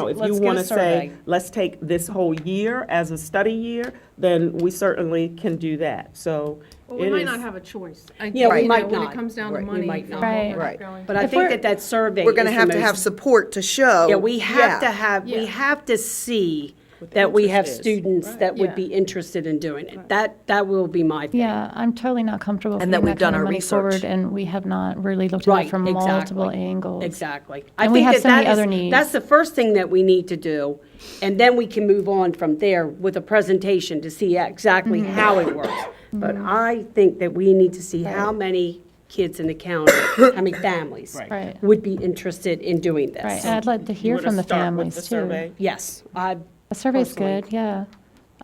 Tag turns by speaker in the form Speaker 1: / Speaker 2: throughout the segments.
Speaker 1: Now, if you
Speaker 2: Let's get a
Speaker 1: want to say,
Speaker 2: survey.
Speaker 1: let's take this whole year as a study year, then we certainly can do that, so.
Speaker 3: Well, we
Speaker 1: it
Speaker 3: might
Speaker 1: is-
Speaker 3: not have a choice. I-
Speaker 2: Yeah, we
Speaker 3: you know,
Speaker 2: might
Speaker 3: When
Speaker 2: not.
Speaker 3: it comes down
Speaker 2: Right,
Speaker 3: to
Speaker 2: we
Speaker 3: money.
Speaker 2: might not.
Speaker 3: no, we're not
Speaker 4: Right.
Speaker 3: going.
Speaker 2: But I
Speaker 4: If
Speaker 2: think
Speaker 4: we're-
Speaker 2: that that survey
Speaker 4: We're gonna
Speaker 2: is the
Speaker 4: have to have
Speaker 2: most-
Speaker 4: support to show.
Speaker 2: Yeah, we have to
Speaker 4: Yeah.
Speaker 2: have, we
Speaker 3: Yeah.
Speaker 2: have to see that we have students that would be interested in doing it. That, that will be my thing.
Speaker 5: Yeah, I'm totally not comfortable
Speaker 4: And that
Speaker 5: putting
Speaker 4: we've
Speaker 5: that
Speaker 4: done
Speaker 5: kind of
Speaker 4: our
Speaker 5: money forward,
Speaker 4: research.
Speaker 5: and we have not really looked at
Speaker 2: Right,
Speaker 5: it from multiple
Speaker 2: exactly.
Speaker 5: angles.
Speaker 2: Exactly. I
Speaker 5: And we
Speaker 2: think
Speaker 5: have
Speaker 2: that
Speaker 5: so many
Speaker 2: that is-
Speaker 5: other needs.
Speaker 2: That's the first thing that we need to do, and then we can move on from there with a presentation to see exactly
Speaker 5: Mm-hmm.
Speaker 2: how it works. But I think that we need to see how many kids in the county, how many families
Speaker 5: Right.
Speaker 2: would be interested in doing
Speaker 5: Right,
Speaker 2: this.
Speaker 5: and I'd like to
Speaker 1: You
Speaker 5: hear
Speaker 1: wanna
Speaker 5: from the
Speaker 1: start with the
Speaker 5: families too.
Speaker 1: survey?
Speaker 2: Yes, I,
Speaker 5: A survey's
Speaker 2: personally.
Speaker 5: good, yeah.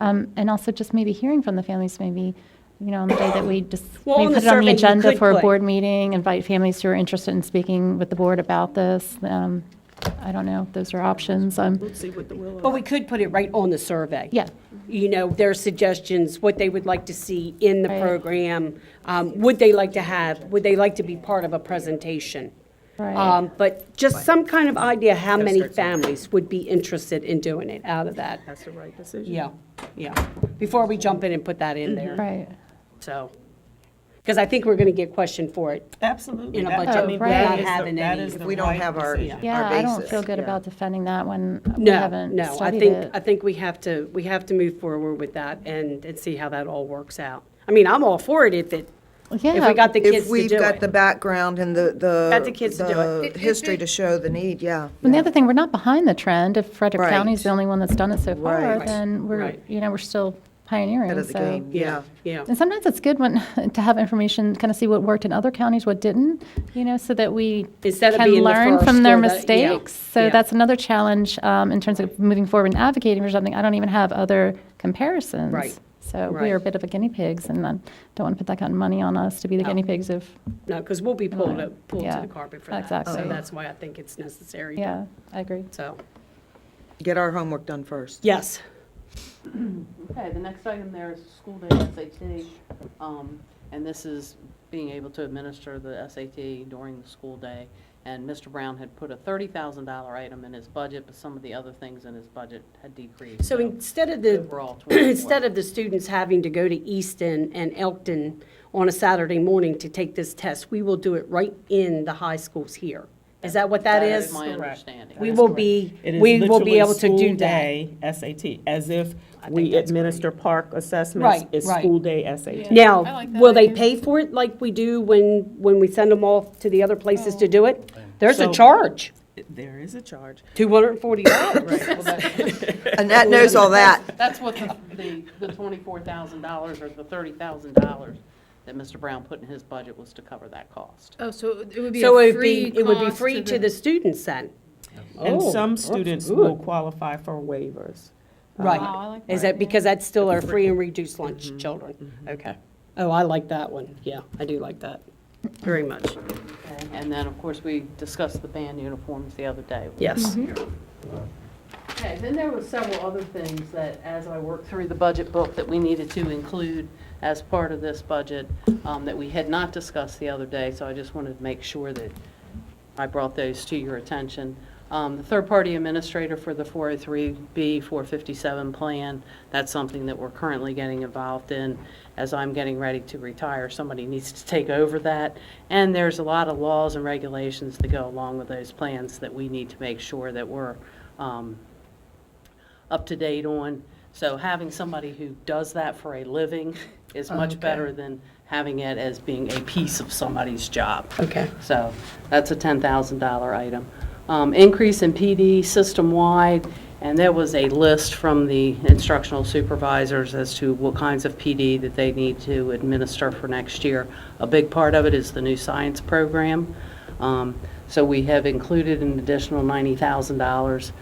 Speaker 5: Um, and also just maybe hearing from the families, maybe, you know, on the day that we just,
Speaker 2: Well, on
Speaker 5: maybe
Speaker 2: the
Speaker 5: put it on
Speaker 2: survey, you
Speaker 5: the agenda
Speaker 2: could
Speaker 5: for a
Speaker 2: put-
Speaker 5: board meeting, invite families who are interested in speaking with the board about this. Um, I don't know, those are options, um,
Speaker 1: See what the will of.
Speaker 2: but we could put it right on the survey.
Speaker 5: yeah.
Speaker 2: you know, their suggestions, what they would like to see in the
Speaker 5: Right.
Speaker 2: program. um, Would they like to have, would they like to be part of a presentation?
Speaker 5: Right.
Speaker 2: Um, But just some kind of idea how many families would be interested in doing it out of that.
Speaker 1: That's the right decision.
Speaker 2: Yeah, yeah. Before we jump in and put that in there,
Speaker 5: Right,
Speaker 2: so. Because I think we're going to get questioned for it.
Speaker 1: Absolutely.
Speaker 2: In a
Speaker 1: That- I
Speaker 2: budget
Speaker 1: mean,
Speaker 5: without
Speaker 1: that is the-
Speaker 2: having
Speaker 1: that
Speaker 2: any-
Speaker 1: is
Speaker 2: If
Speaker 1: the
Speaker 4: we don't
Speaker 1: right
Speaker 4: have our-
Speaker 1: decision.
Speaker 5: yeah, I don't
Speaker 4: basis,
Speaker 5: feel good about defending that when we
Speaker 2: No,
Speaker 5: haven't
Speaker 2: no, I
Speaker 5: studied
Speaker 2: think, I
Speaker 5: it.
Speaker 2: think we have to, we have to move forward with that and, and see how that all works out. I mean, I'm all for it if it, if
Speaker 5: Yeah.
Speaker 2: we got the kids
Speaker 4: If
Speaker 2: to do it.
Speaker 4: we've got the background and the, the.
Speaker 2: Got the kids to do it.
Speaker 4: the History to show the need, yeah.
Speaker 5: And the other thing, we're not behind the trend. If Frederick
Speaker 4: Right.
Speaker 5: County's the only one that's done it so far,
Speaker 4: Right.
Speaker 5: then we're,
Speaker 2: Right.
Speaker 5: you know, we're still pioneering.
Speaker 4: Out of the
Speaker 5: so-
Speaker 4: game, yeah.
Speaker 2: Yeah.
Speaker 5: And sometimes it's good when, to have information, kind of see what worked in other counties, what didn't, you know, so that we
Speaker 2: Instead of
Speaker 5: can
Speaker 2: being the
Speaker 5: learn
Speaker 2: first
Speaker 5: from their
Speaker 2: or the- yeah,
Speaker 5: mistakes. So
Speaker 2: yeah.
Speaker 5: that's another challenge um, in terms of moving forward and advocating for something. I don't even have other comparisons.
Speaker 2: Right.
Speaker 5: So
Speaker 2: Right.
Speaker 5: we are a bit of a guinea pigs, and I don't want to put that kind of money on us to be the guinea pigs of,
Speaker 2: No, because we'll be pulled, to- pulled to
Speaker 5: Mm-hmm. Yeah,
Speaker 2: the carpet for that. So
Speaker 5: exactly.
Speaker 2: that's why I think it's necessary.
Speaker 5: yeah, I agree.
Speaker 2: So,
Speaker 4: Get our homework done first.
Speaker 2: yes.
Speaker 6: Okay, the next item there is school day SAT, um, and this is being able to administer the SAT during the school day. And Mr. Brown had put a thirty thousand dollar item in his budget, but some of the other things in his budget had decreased.
Speaker 2: So instead of the,
Speaker 6: Overall, twenty-four.
Speaker 2: instead of the students having to go to Easton and Elkton on a Saturday morning to take this test, we will do it right in the high schools here. Is that what that is?
Speaker 6: my understanding.
Speaker 2: We will be,
Speaker 1: It is
Speaker 2: we will
Speaker 1: literally
Speaker 2: be able to do
Speaker 1: school
Speaker 2: that.
Speaker 1: day SAT, as if
Speaker 2: I think
Speaker 1: we
Speaker 2: that's
Speaker 1: administer park assessments,
Speaker 2: Right,
Speaker 1: it's
Speaker 2: right.
Speaker 1: school day SAT.
Speaker 3: I
Speaker 2: Now,
Speaker 3: like that
Speaker 2: will they
Speaker 3: idea.
Speaker 2: pay for it like we do when, when we send them off to the other places
Speaker 5: Oh.
Speaker 2: to do it? There's a
Speaker 1: So-
Speaker 2: charge,
Speaker 1: There is a charge.
Speaker 2: $240.
Speaker 6: Well, that-
Speaker 4: Annette knows all that.
Speaker 6: That's what the, the, the twenty-four thousand dollars or the thirty thousand dollars that Mr. Brown put in his budget was to cover that cost.
Speaker 3: Oh, so it would be
Speaker 2: So
Speaker 3: a
Speaker 2: it would be,
Speaker 3: free
Speaker 2: it would be
Speaker 3: cost
Speaker 2: free to the students then?
Speaker 1: And
Speaker 2: Oh,
Speaker 1: some
Speaker 2: that's
Speaker 1: students
Speaker 2: good.
Speaker 1: will qualify for waivers.
Speaker 3: Wow, I
Speaker 2: Right.
Speaker 3: like
Speaker 2: Is
Speaker 3: that.
Speaker 2: Oh, that, because that's still our free and reduced lunch children? Okay. Oh, I like that one. Yeah, I do like that very much.
Speaker 6: And then, of course, we discussed the band uniforms the other day.
Speaker 2: Yes.
Speaker 6: Okay, then there were several other things that, as I worked through the budget book, that we needed to include as part of this budget um, that we had not discussed the other day, so I just wanted to make sure that I brought those to your attention. Um, The third-party administrator for the 403B 457 plan, that's something that we're currently getting involved in. As I'm getting ready to retire, somebody needs to take over that. And there's a lot of laws and regulations that go along with those plans that we need to make sure that we're um, up to date on. So having somebody who does that for a living is much better than having it as being a piece of somebody's job.
Speaker 2: Okay.
Speaker 6: So that's a $10,000 item. Um, Increase in PD system-wide, and there was a list from the instructional supervisors as to what kinds of PD that they need to administer for next year. A big part of it is the new science program. Um, So we have included an additional $90,000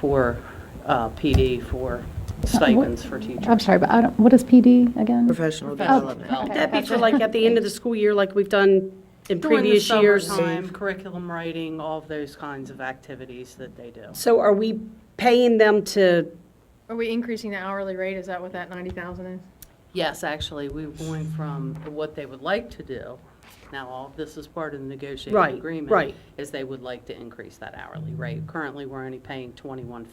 Speaker 6: for uh, PD for stipends for teachers.
Speaker 5: I'm sorry, but I don't, what is PD again?
Speaker 4: Professional development.
Speaker 2: Would that be for like at the end of the school year, like we've done in previous years?
Speaker 6: During the summertime, curriculum writing, all of those kinds of activities that they do.
Speaker 2: So are we paying them to,
Speaker 3: Are we increasing the hourly rate? Is that what that ninety thousand is?
Speaker 6: Yes, actually, we were going from what they would like to do Now, all of this is part of the negotiated
Speaker 2: Right,
Speaker 6: agreement.
Speaker 2: right.
Speaker 6: Is they would like to increase that hourly rate. Currently, we're only paying twenty-one